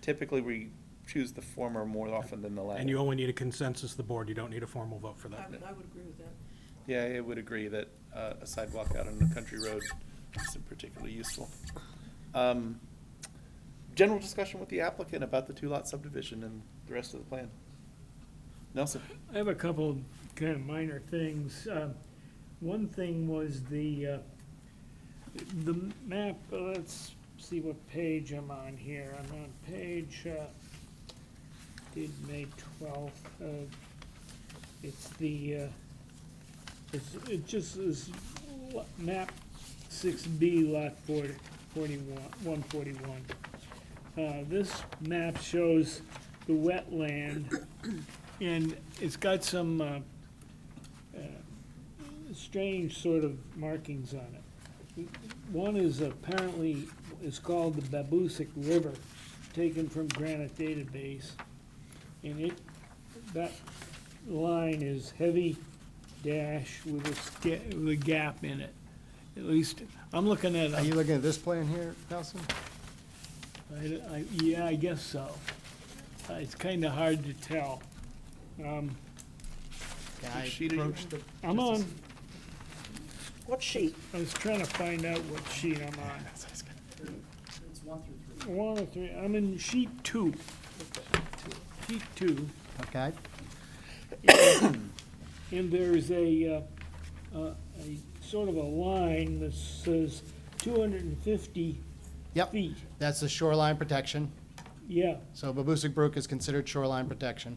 Typically, we choose the former more often than the latter. And you only need a consensus of the board, you don't need a formal vote for I, that. I would agree with that. Yeah, I would agree that uh, a sidewalk out on a country road isn't particularly useful. Um, General discussion with the applicant about the two-lot subdivision and the rest of the plan. Nelson? I have a couple kind of minor things. Um, One thing was the, uh, the map, uh, let's see what page I'm on here. I'm on page, uh, did May twelfth. uh, It's the, uh, it's, it just is lo- map six B lot forty, forty-one, one forty-one. Uh, This map shows the wetland and it's got some uh, uh, strange sort of markings on it. One is apparently, is called the Babusick River, taken from Granite Database. And it, that line is heavy dash with a, sca- with a gap in it. At least, I'm looking at, Are you a- looking at this plan here, Nelson? I- I- yeah, I guess so. Uh, It's kind of hard to tell. Um, Can Which I sheet are you approach the? I'm just a on, s- What sheet? I was trying to find out what sheet I'm on. It's one through three. One or three, I'm in sheet two. Sheet two, Okay, and there's a, uh, uh, a sort of a line that says two hundred and fifty Yep. feet. that's the shoreline protection. Yeah, So Babusick Brook is considered shoreline protection.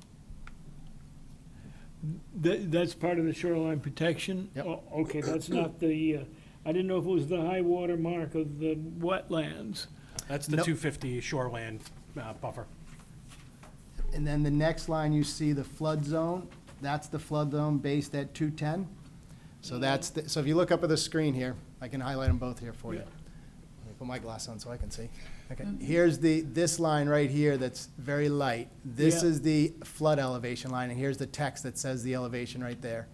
that, that's part of the shoreline protection? Yep. Oh, Okay, that's not the, uh, I didn't know if it was the high water mark of the wetlands. That's the Nope. two fifty shoreland uh, buffer. And then the next line, you see the flood zone, that's the flood zone based at 210. So that's, the- so if you look up at the screen here, I can highlight them both here for you. Yeah. Let me put my glass on so I can see. Okay, here's the, this line right here that's very light. This Yeah. is the flood elevation line, and here's the text that says the elevation right there.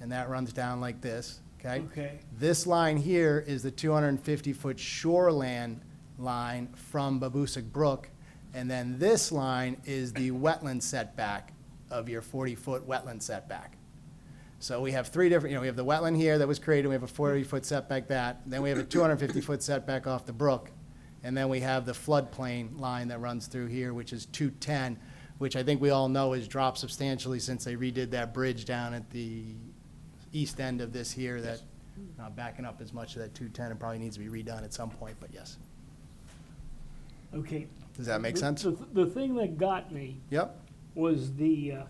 And that runs down like this, okay? Okay. This line here is the 250-foot shoreland line from Babusick Brook, and then this line is the wetland setback of your 40-foot wetland setback. So we have three different, you know, we have the wetland here that was created, we have a 40-foot setback that, then we have a 250-foot setback off the brook, and then we have the floodplain line that runs through here, which is 210, which I think we all know has dropped substantially since they redid that bridge down at the east end of this here that, not backing up as much of that 210, it probably needs to be redone at some point, but yes. Okay. Does that make The- sense? The, the thing that got me Yep, was the, uh,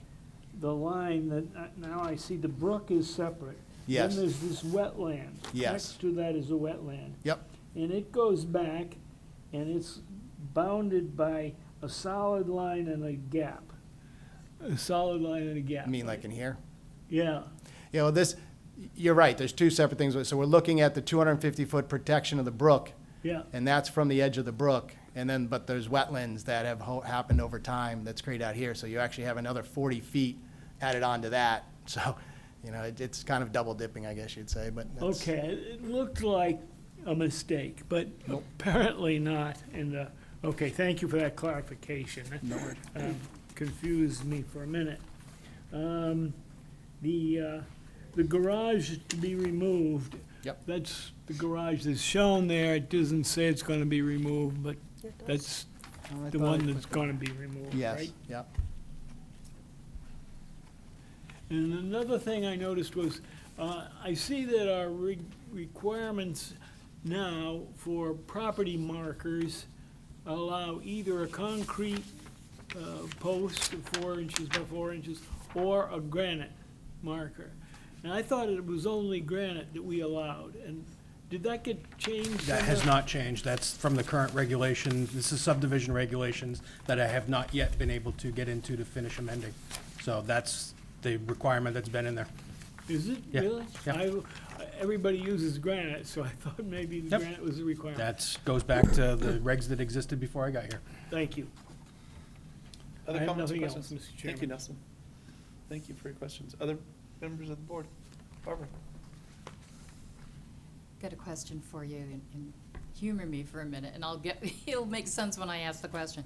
the line that, uh, now I see the brook is separate. Yes. Then there's this wetland. Yes. Next to that is a wetland. yep, And it goes back, and it's bounded by a solid line and a gap. A solid line and a gap. I mean, like in here. Yeah, You know, this, you're right, there's two separate things, so we're looking at the 250-foot protection of the brook, yeah, and that's from the edge of the brook, and then, but there's wetlands that have ho- happened over time that's created out here, so you actually have another 40 feet added onto that, so, you know, it- it's kind of double dipping, I guess you'd say, but that's. okay, it it looked like a mistake, but apparently not, and, uh, okay, thank you for that clarification. No Confused me for a minute. Um, The, uh, the garage to be removed. Yep. That's, the garage that's shown there, it doesn't say it's gonna be removed, but that's Oh, I the thought one I that's put- gonna be removed, Yes, right? yep. And another thing I noticed was, uh, I see that our re- requirements now for property markers allow either a concrete uh, post of four inches by four inches or a granite marker. And I thought it was only granite that we allowed, and did that get changed? That has somehow? not changed, that's from the current regulation, this is subdivision regulations that I have not yet been able to get into to finish amending. So that's the requirement that's been in there. Is it, Yeah, really? yeah. I- Everybody uses granite, so I thought maybe the Yep. granite was a requirement. That's, goes back to the regs that existed before I got here. Thank you. I Other have comments or nothing else, questions? Mr. Thank you, Chairman. Nelson. Thank you for your questions. Other members of the board? Barbara? Got a question for you, and- and humor me for a minute, and I'll get, it'll make sense when I ask the question.